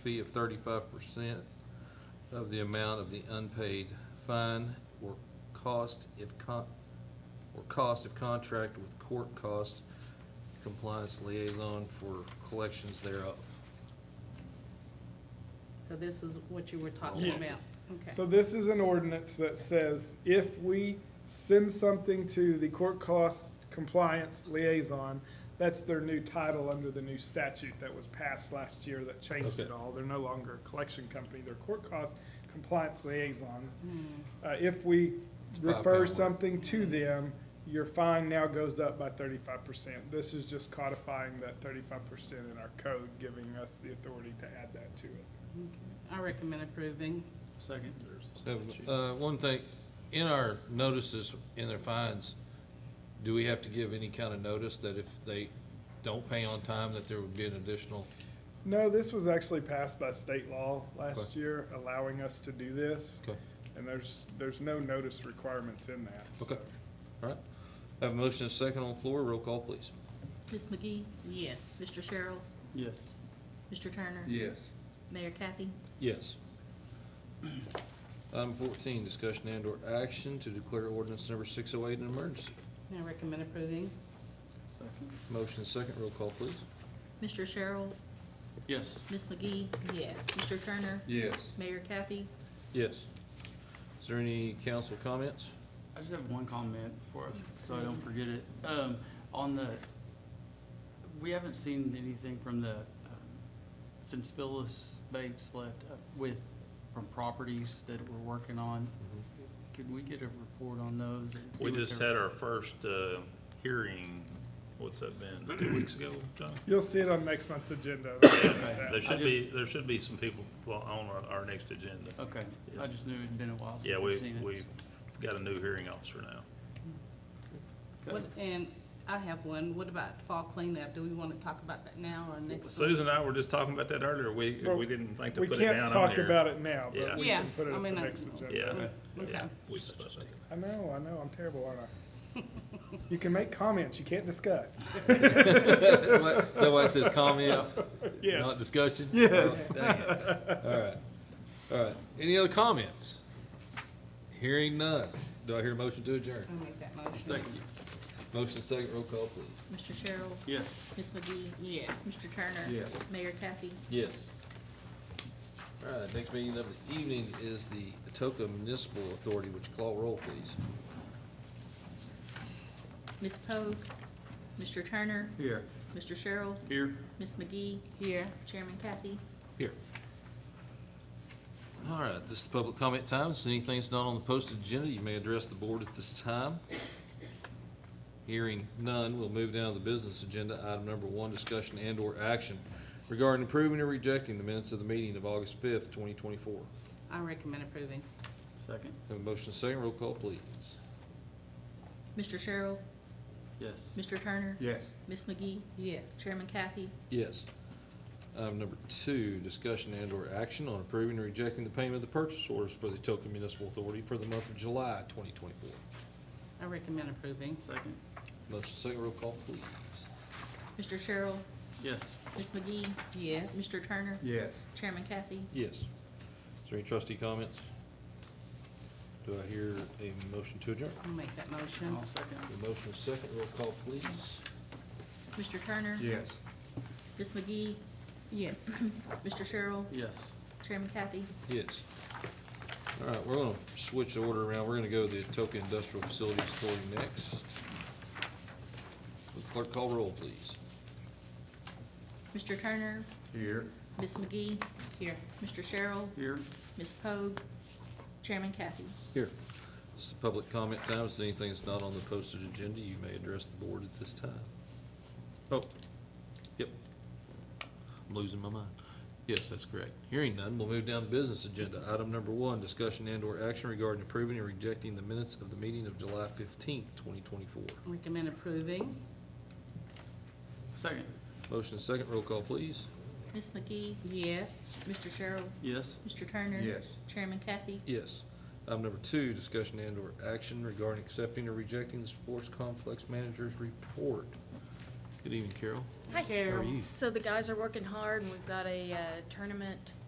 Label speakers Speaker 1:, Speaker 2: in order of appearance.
Speaker 1: fee of thirty-five percent of the amount of the unpaid fine or cost if con, or cost of contract with court cost compliance liaison for collections thereof.
Speaker 2: So this is what you were talking
Speaker 3: Yes.
Speaker 2: about? Okay.
Speaker 3: So this is an ordinance that says if we send something to the court cost compliance liaison, that's their new title under the new statute that was passed last year that changed it
Speaker 1: Okay.
Speaker 3: all. They're no longer a collection company, they're court cost compliance liaisons. Uh, if we
Speaker 1: five
Speaker 3: refer
Speaker 1: pound.
Speaker 3: something to them, your fine now goes up by thirty-five percent. This is just codifying that thirty-five percent in our code, giving us the authority to add that to it.
Speaker 2: I recommend approving.
Speaker 4: Second.
Speaker 1: So, uh, one thing, in our notices, in their fines, do we have to give any kind of notice that if they don't pay on time, that there would be an additional?
Speaker 3: No, this was actually passed by state law last
Speaker 1: Okay.
Speaker 3: year, allowing us to do this.
Speaker 1: Okay.
Speaker 3: And there's, there's no notice requirements in that.
Speaker 1: Okay,
Speaker 3: so.
Speaker 1: all right. Have a motion and a second on the floor, roll call, please.
Speaker 5: Ms. McGee,
Speaker 2: Yes.
Speaker 5: Mr. Sherrill,
Speaker 4: Yes.
Speaker 5: Mr. Turner.
Speaker 6: Yes.
Speaker 5: Mayor Kathy.
Speaker 1: Yes. Item fourteen, discussion and/or action to declare ordinance number six oh eight an emergency.
Speaker 2: I recommend approving.
Speaker 4: Second.
Speaker 1: Motion and second, roll call, please.
Speaker 5: Mr. Sherrill,
Speaker 4: Yes.
Speaker 5: Ms. McGee,
Speaker 2: Yes.
Speaker 5: Mr. Turner,
Speaker 6: Yes.
Speaker 5: Mayor Kathy.
Speaker 1: Yes. Is there any council comments?
Speaker 4: I just have one comment for, so I don't forget it. Um, on the, we haven't seen anything from the, um, since Phyllis Bates left uh, with, from properties that we're working on. Could we get a report on those? and see
Speaker 7: We
Speaker 4: what
Speaker 7: just
Speaker 4: they're-
Speaker 7: had our first uh, hearing, what's that been, two weeks ago, John?
Speaker 3: You'll see it on next month's agenda.
Speaker 7: There
Speaker 4: I
Speaker 7: should be, there should be some people on our- our next agenda.
Speaker 4: Okay, I just knew it'd been a while
Speaker 7: Yeah,
Speaker 4: since we've
Speaker 7: we,
Speaker 4: seen it.
Speaker 7: we've got a new hearing officer now.
Speaker 4: Okay.
Speaker 2: What- And I have one. What about fall cleanup? Do we want to talk about that now or next?
Speaker 7: Susan and I were just talking about that earlier. We,
Speaker 3: Well,
Speaker 7: we didn't think to
Speaker 3: We
Speaker 7: put it down on
Speaker 3: can't talk
Speaker 7: there.
Speaker 3: about it now,
Speaker 7: Yeah.
Speaker 3: but we
Speaker 2: Yeah,
Speaker 3: can put
Speaker 2: I
Speaker 3: it at the
Speaker 2: mean, I-
Speaker 3: next agenda.
Speaker 7: Yeah,
Speaker 2: Okay.
Speaker 7: yeah. We just thought about
Speaker 3: I know, I know, I'm terrible, aren't I? You can make comments, you can't discuss.
Speaker 1: Is that why it says comments? Not
Speaker 3: Yes.
Speaker 1: discussion? Yes. Dang it. All right, all right. Any other comments? Hearing none. Do I hear a motion to adjourn?
Speaker 2: I'll make that motion.
Speaker 4: Second,
Speaker 1: Motion second, roll call, please.
Speaker 5: Mr. Sherrill,
Speaker 4: yes.
Speaker 5: Ms. McGee,
Speaker 2: Yes.
Speaker 5: Mr. Turner.
Speaker 6: Yes.
Speaker 5: Mayor Kathy.
Speaker 1: Yes. All right, next meeting of the evening is the Atoka Municipal Authority, which call roll, please.
Speaker 5: Ms. Pogue, Mr. Turner,
Speaker 6: Here.
Speaker 5: Mr. Sherrill,
Speaker 4: Here.
Speaker 5: Ms. McGee,
Speaker 2: Here.
Speaker 5: Chairman Kathy.
Speaker 1: Here. All right, this is public comment time. So anything that's not on the posted agenda, you may address the board at this time. Hearing none, we'll move down to the business agenda. Item number one, discussion and/or action regarding approving or rejecting the minutes of the meeting of August fifth, twenty twenty-four.
Speaker 2: I recommend approving.
Speaker 4: Second,
Speaker 1: Have a motion second, roll call, please.
Speaker 5: Mr. Sherrill,
Speaker 4: yes.
Speaker 5: Mr. Turner,
Speaker 6: Yes.
Speaker 5: Ms. McGee,
Speaker 2: Yes.
Speaker 5: Chairman Kathy.
Speaker 1: Yes. Item number two, discussion and/or action on approving or rejecting the payment of the purchase orders for the Etoka Municipal Authority for the month of July 2024.
Speaker 2: I recommend approving.
Speaker 4: Second,
Speaker 1: Motion second, roll call, please.
Speaker 5: Mr. Sherrill,
Speaker 4: yes.
Speaker 5: Ms. McGee,
Speaker 2: Yes.
Speaker 5: Mr. Turner,
Speaker 6: Yes.
Speaker 5: Chairman Kathy.
Speaker 1: Yes. Is there any trustee comments? Do I hear a motion to adjourn?
Speaker 2: I'll make that motion.
Speaker 4: I'll second.
Speaker 1: The motion is second, roll call, please.
Speaker 5: Mr. Turner.
Speaker 6: Yes.
Speaker 5: Ms. McGee,
Speaker 2: Yes.
Speaker 5: Mr. Sherrill,
Speaker 4: Yes.
Speaker 5: Chairman Kathy.
Speaker 1: Yes. All right, we're gonna switch the order around. We're gonna go to the Etoka Industrial Facilities Authority next. Clerk, call roll, please.
Speaker 5: Mr. Turner,
Speaker 6: Here.
Speaker 5: Ms. McGee. Here. Mr. Sherrill,
Speaker 4: Here,
Speaker 5: Ms. Pogue, Chairman Kathy.
Speaker 1: Here. This is public comment time. If there's anything that's not on the posted agenda, you may address the board at this time. Oh, yep. I'm losing my mind. Yes, that's correct. Hearing none, we'll move down to business agenda. Item number one, discussion and/or action regarding approving or rejecting the minutes of the meeting of July fifteenth, twenty twenty-four.
Speaker 2: Recommend approving.
Speaker 4: second,
Speaker 1: Motion and second, roll call, please.
Speaker 5: Ms. McGee,
Speaker 2: Yes.
Speaker 5: Mr. Sherrill,
Speaker 4: yes.
Speaker 5: Mr. Turner.
Speaker 6: Yes.
Speaker 5: Chairman Kathy.
Speaker 1: Yes. Item number two, discussion and/or action regarding accepting or rejecting the sports complex manager's report. Good evening, Carol.
Speaker 6: Hi,
Speaker 1: How are
Speaker 6: Carol.
Speaker 1: you?
Speaker 6: So the guys are working hard, and we've got a uh, tournament